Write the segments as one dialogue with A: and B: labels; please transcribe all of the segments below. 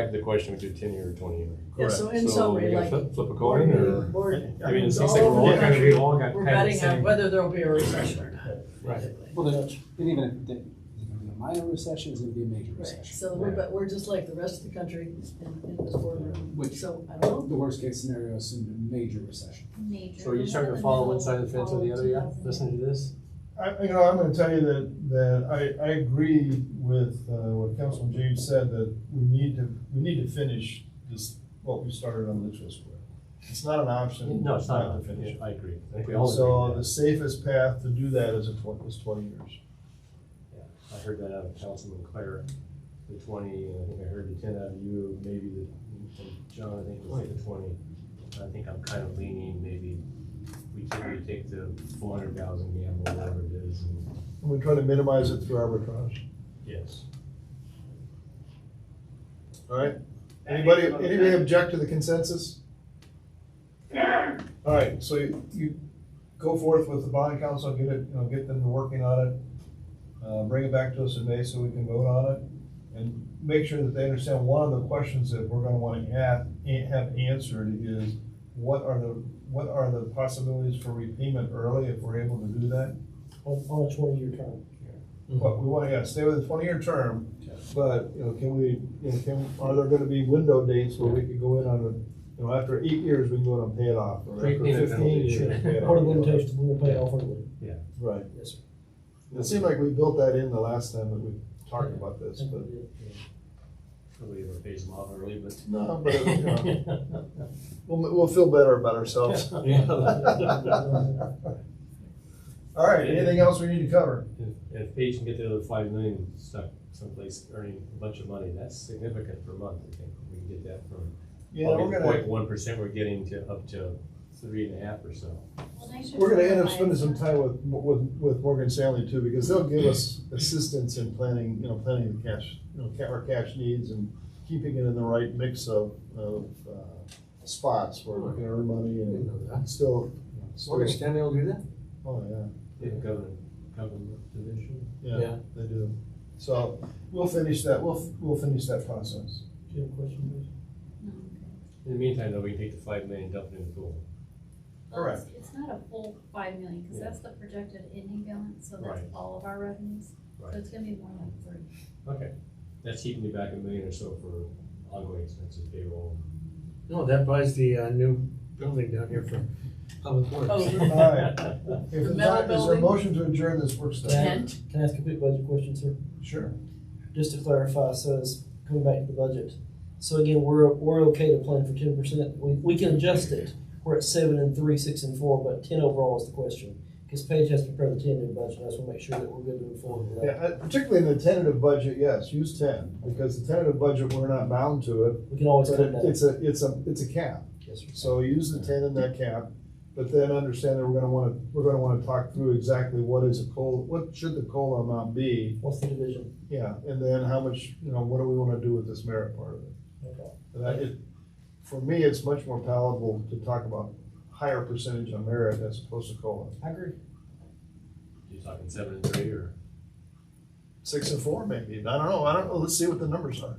A: Back to the question, we do ten year or twenty year.
B: Yeah, so in
A: So we
B: summary,
A: gotta
B: like,
A: flip- Flip a coin
B: we're,
A: or?
B: we're,
A: I mean, it
B: all
A: seems like we're all
B: over the
A: kind of, we
B: country,
A: all got
B: we're
A: kind of the
B: betting on
A: same.
B: whether there'll be a recession or not.
A: Right.
B: basically.
C: Well, there's, and even if they, it's gonna be a minor recession, it's gonna be a major
B: Right,
C: recession.
B: so we're, but we're just like the rest of the country in, in this boardroom,
C: Which-
B: so I don't know.
C: The worst case scenario is a major recession.
D: Major.
A: So are you starting to follow one side of the fence or the other yet, listening to this?
E: I, you know, I'm gonna tell you that, that I, I agree with, uh, what Councilman James said, that we need to, we need to finish this, what we started on Litchfield Square. It's not an option.
A: No, it's not,
E: to finish.
A: I agree. I think we all
E: So
A: agree
E: the
A: with
E: safest path to do that is a twenty, is twenty years.
A: that. I heard that out of Councilman Claire, the twenty, and I think I heard the ten out of you, maybe the, and John, I think it was the twenty. I think I'm kind of leaning, maybe we take, we take the four hundred thousand gamble, whatever it is, and,
E: And we try to minimize it through arbitrage,
A: yes.
E: all right? Anybody, anybody object to the consensus? All right, so you- you go forth with the bond council, get it, you know, get them to working on it. Uh, bring it back to us in May so we can vote on it. And make sure that they understand one of the questions that we're gonna wanna have, have answered is what are the, what are the possibilities for repayment early if we're able to do that?
F: on, on a twenty-year term.
E: But we want, yeah, stay with a twenty-year term,
A: Yeah.
E: but, you know, can we, you know, can, are there gonna be window dates where we could go in on a, you know, after eight years, we can go in and pay it off, or after
A: Prepayment
E: fifteen
A: penalty,
E: years.
A: sure.
E: pay it
F: Part of
E: off.
F: the limitations, we will pay off early.
E: Right.
F: Yes, sir.
E: It seemed like we built that in the last time that we talked about this, but,
A: Probably ever phase them off early, but.
E: no, but, you know, we'll, we'll feel better about ourselves.
A: Yeah.
E: All right, anything else we need to cover?
A: If- If Paige can get the other five million stuck someplace earning a bunch of money, that's significant per month, I think. We can get that from
E: Yeah, we're
A: point
E: gonna,
A: one percent, we're getting to up to three and a half or so.
E: we're gonna end up spending some time with, with, with Morgan Stanley too, because they'll give us assistance in planning, you know, planning the cash, you know, ca- our cash needs and keeping it in the right mix of, of, uh, spots where we can earn money and still.
G: Morgan Stanley will do that?
E: Oh, yeah.
A: They have government, government division.
E: Yeah,
G: Yeah.
E: they do. So we'll finish that, we'll, we'll finish that process.
F: Do you have a question, please?
A: In the meantime, though, we can take the five million, dump it in the pool.
E: Correct.
D: It's not a full five million, because
A: Yeah.
D: that's the projected ending balance, so that's
A: Right.
D: all of our revenues. So
A: Right.
D: it's gonna be more like three.
A: Okay. That's keeping you back a million or so for ongoing expenses, payroll.
G: No, that buys the, uh, new building down here for public works.
B: Oh,
E: All right. If
B: The metal
E: it's not, is there a
B: building?
E: motion to adjourn this work study?
B: Yeah.
D: Ten,
F: Can I ask a quick budget question, sir?
E: Sure.
F: Just to clarify, so it's coming back to the budget. So again, we're, we're okay to plan for ten percent. We, we can adjust it. We're at seven and three, six and four, but ten overall is the question. Because Paige has to prepare the ten-year budget, I just want to make sure that we're good to move forward with
E: Yeah,
F: that.
E: uh, particularly in the tentative budget, yes, use ten, because the tentative budget, we're not bound to it.
F: We can always
E: But
F: come
E: it-
F: back.
E: it's a, it's a, it's a cap.
F: Yes, sir.
E: So use the ten in that cap, but then understand that we're gonna wanna, we're gonna wanna talk through exactly what is a COLA, what should the COLA amount be?
F: What's the division?
E: Yeah, and then how much, you know, what do we wanna do with this merit part of it?
F: Okay.
E: And I, it, for me, it's much more palatable to talk about higher percentage on merit as opposed to COLA.
F: I agree.
A: You're talking seven and three or?
E: Six and four maybe, I don't know, I don't know, let's see what the numbers are.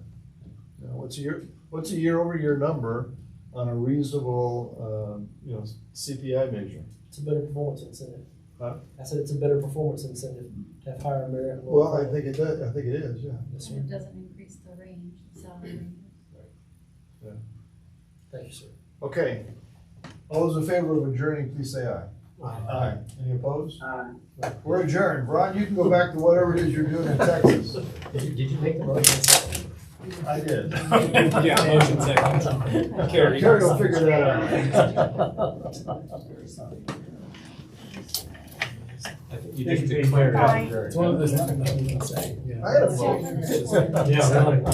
E: You know, what's a year, what's a year-over-year number on a reasonable, um, you know, CPI measure?
F: It's a better performance incentive.
E: Huh?
F: I said it's a better performance incentive to have higher merit. and lower
E: Well, I
F: quality.
E: think it does, I think it is, yeah.
F: Yes,
D: and
F: sir.
D: it doesn't increase the range, salary.
F: Thank you, sir.
E: Okay, all those in favor of adjourning, please say aye. Aye. Any opposed? Aye. We're adjourned, Ron, you can go back to whatever it is you're doing in Texas.
A: Did you, did you make the motion?
E: I did.
A: Yeah, motion second. Carrie.
E: Carrie will figure that out.
A: I think You did declare. it.
D: Bye.
A: Very
G: It's one of
A: good.
G: those.
E: I had a vote.
G: Yeah, really.